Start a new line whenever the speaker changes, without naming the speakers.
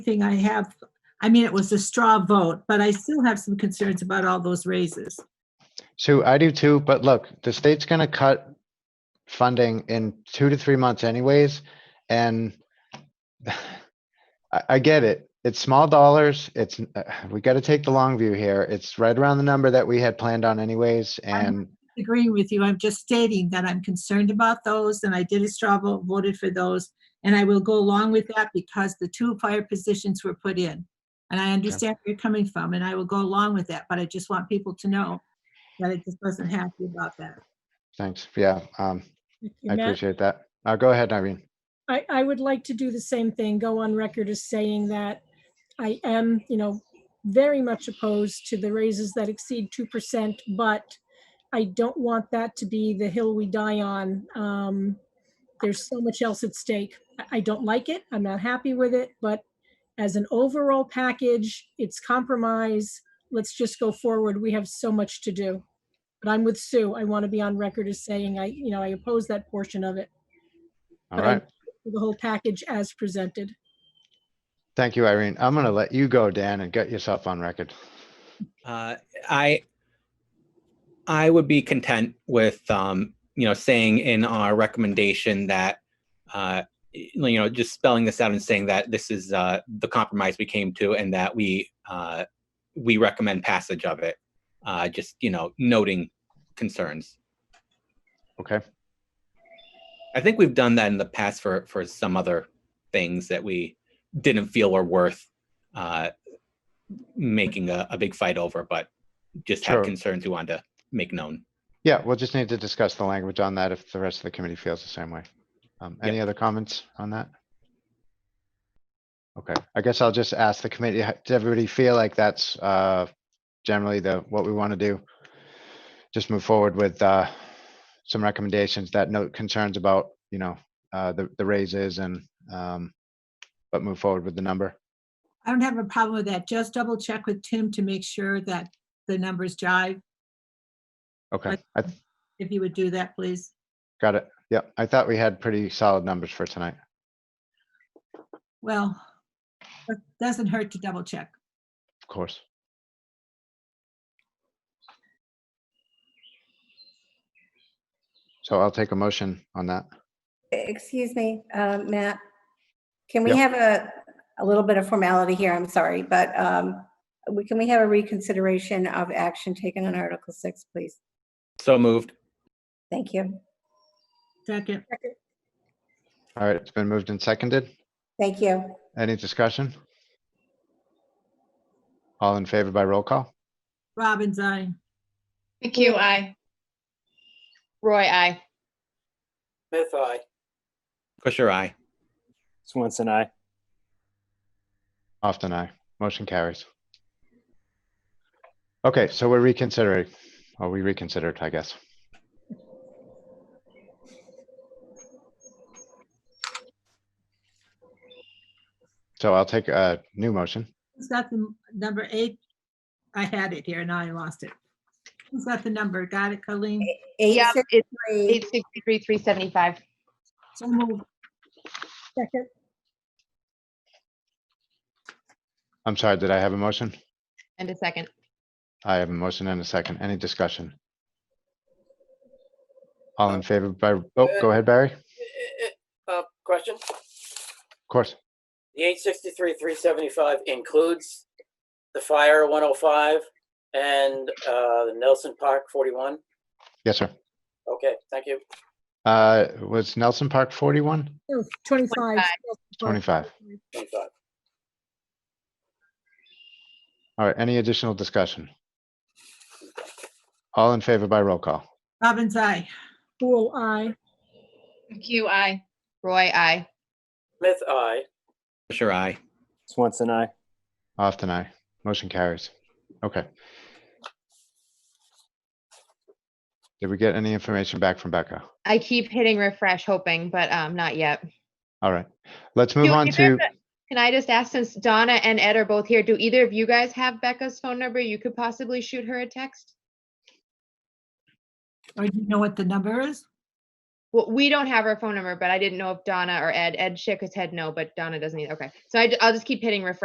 thing I have, I mean, it was a straw vote, but I still have some concerns about all those raises.
So I do too, but look, the state's gonna cut funding in two to three months anyways, and I, I get it. It's small dollars. It's, uh, we gotta take the long view here. It's right around the number that we had planned on anyways,
Um,
and
Agreeing with you, I'm just stating that I'm concerned about those, and I did a straw vote, voted for those, and I will go along with that because the two fire positions were put in. And I understand where you're coming from, and I will go along with that, but I just want people to know that I just wasn't happy about that.
thanks. Yeah, um,
Thank
I
you, Matt.
appreciate that. Uh, go ahead, Irene.
I, I would like to do the same thing, go on record as saying that I am, you know, very much opposed to the raises that exceed 2%, but I don't want that to be the hill we die on. Um, There's so much else at stake. I- I don't like it. I'm not happy with it, but as an overall package, it's compromise. Let's just go forward. We have so much to do. But I'm with Sue. I want to be on record as saying I, you know, I oppose that portion of it.
All
Okay.
right.
the whole package as presented.
Thank you, Irene. I'm gonna let you go, Dan, and get yourself on record.
Uh, I I would be content with um, you know saying in our recommendation that uh, you know just spelling this out and saying that this is uh, the compromise we came to and that we uh, we recommend passage of it. Uh, just you know noting concerns.
Okay,
I think we've done that in the past for for some other things that we didn't feel were worth uh, making a, a big fight over, but just
Sure.
have concerns we wanted to make known.
yeah, we'll just need to discuss the language on that if the rest of the committee feels the same way. Um,
Yep.
any other comments on that? Okay, I guess I'll just ask the committee, h- does everybody feel like that's, uh, generally the, what we want to do? Just move forward with, uh, some recommendations that note concerns about, you know, uh, the, the raises and, um, but move forward with the number.
I don't have a problem with that. Just double check with Tim to make sure that the numbers jive.
Okay,
But-
I, th-
If you would do that, please.
got it. Yep, I thought we had pretty solid numbers for tonight.
Well, it doesn't hurt to double check.
Of course. So I'll take a motion on that.
Excuse me, uh, Matt. Can we
Yep.
have a, a little bit of formality here? I'm sorry, but um, we, can we have a reconsideration of action taken on Article 6, please?
So moved.
Thank you.
Second,
All right, it's been moved and seconded.
Thank you.
Any discussion? All in favor by roll call?
Robbins, aye.
McHugh, aye. Roy, aye.
Smith, aye.
Kusher, aye.
Swanson, aye.
Often aye. Motion carries. Okay, so we're reconsidering, or we reconsidered, I guess. So I'll take a new motion.
Who's got the m- number eight? I had it here, now I lost it. Who's got the number? Got it, Colleen?
Yeah, it's
863,
eight sixty-three, three seventy-five.
So moved.
Second,
I'm sorry, did I have a motion?
And a second.
I have a motion and a second. Any discussion? All in favor by, oh, go ahead, Barry. Of
Uh, question?
course.
The eight sixty-three, three seventy-five includes the fire one oh five and, uh, Nelson Park forty-one?
Yes, sir.
Okay, thank you.
Uh, was Nelson Park 41?
no, 25.
25.
Twenty-five.
All right, any additional discussion? All in favor by roll call?
Robbins, aye.
Fool, I,
McHugh, aye. Roy, aye.
Smith, aye.
Kusher, aye.
Swanson, aye.
Often aye. Motion carries. Okay. Did we get any information back from Becca?
I keep hitting refresh hoping, but um, not yet.
All right, let's
Do
move on
either
to,
of the- Can I just ask, since Donna and Ed are both here, do either of you guys have Becca's phone number? You could possibly shoot her a text?
Or do you know what the number is?
Well, we don't have her phone number, but I didn't know if Donna or Ed, Ed shook his head no, but Donna doesn't either. Okay. So I, will just keep hitting refresh